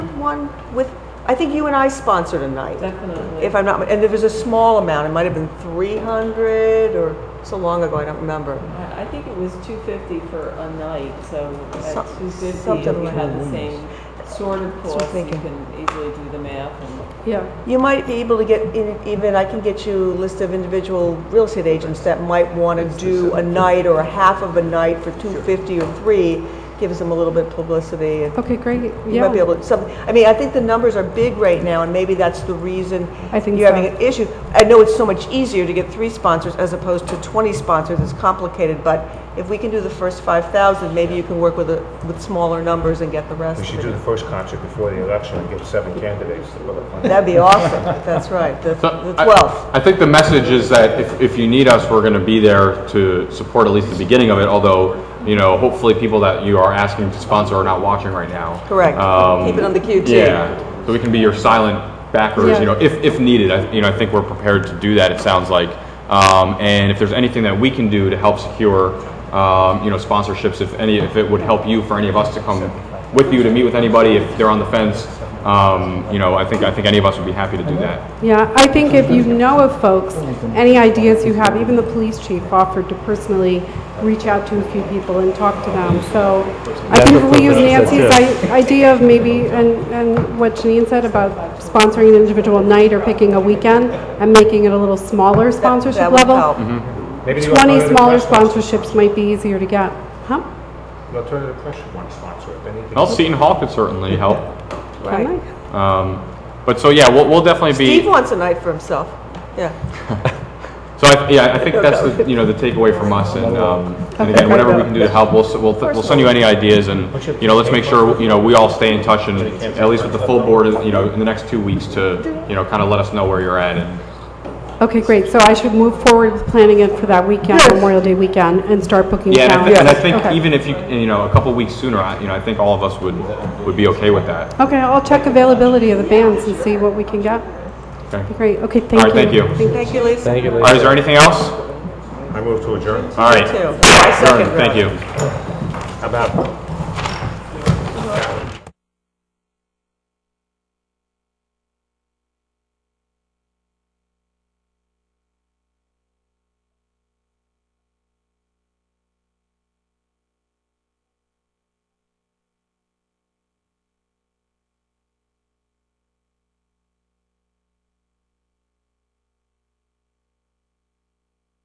one with, I think you and I sponsored a night, Definitely. if I'm not, and it was a small amount, it might have been 300 or so long ago, I don't remember. I I think it was two fifty for a night, so Some- at two fifty, something if you like had that. the same sort of what I'm cost, you thinking. can easily do the math and. Yeah, You might be able to get, in- even, I can get you a list of individual real estate agents that might want to do a night or a half of a night for 250 or three, gives them a little bit of publicity. and okay, great, You might be yeah. able to, some, I mean, I think the numbers are big right now, and maybe that's the reason I think you're so. having an issue. I know it's so much easier to get three sponsors as opposed to 20 sponsors, it's complicated, but if we can do the first 5,000, maybe you can work with, a- with smaller numbers and get the rest We of should it. do the first concert before the election and get seven candidates to put up on. That'd be awesome, that's right, the So, the I- 12th. I think the message is that if, if you need us, we're going to be there to support at least the beginning of it, although, you know, hopefully people that you are asking to sponsor are not watching right now. Correct. Um, Keep it on the queue, too. Yeah, so we can be your silent backers, you Yeah. know, if, if needed. I, you know, I think we're prepared to do that, it sounds like. Um, and if there's anything that we can do to help secure, um, you know, sponsorships, if any, if it would help you for any of us to come with you to meet with anybody, if they're on the fence, um, you know, I think, I think any of us would be happy to do that. Yeah, I think if you know of folks, any ideas you have, even the police chief offered to personally reach out to a few people and talk to them. So I think if we use Nancy's i- idea of maybe, and, and what Janine said about sponsoring an individual night or picking a weekend and making it a little smaller sponsorship That would level, help. Mm-hmm. Maybe the 20 alternative smaller press wants- sponsorships might be easier to get. Huh? The alternative press should want to sponsor it. They need to- Well, Seton Hall could certainly help. Am Right. I? Um, but so yeah, we'll, we'll definitely Steve be. wants a night for himself, yeah. So I, yeah, I think that's the you know the takeaway from us, and, um, and again, whatever we can do to help, we'll s- we'll, we'll send you any ideas, and you know let's make sure you know we all stay in touch, and at least with the full board, you know, in the next two weeks to you know kind of let us know where you're at, and Okay, great. So I should move forward with planning it for that weekend, Yes. Memorial Day weekend, and start booking yeah, and I, calendars. thi- and I think Okay. even if you you know a couple weeks sooner, I, you know I think all of us would would be okay with that. Okay, I'll check availability of the bands and see what we can get. Okay. Great, okay, thank you. All right, thank you. All Thank you, Lisa. Thank you. right, is there anything else? I move to adjourn. All right, Too. I second Adjourn. thank Ralph. you. How about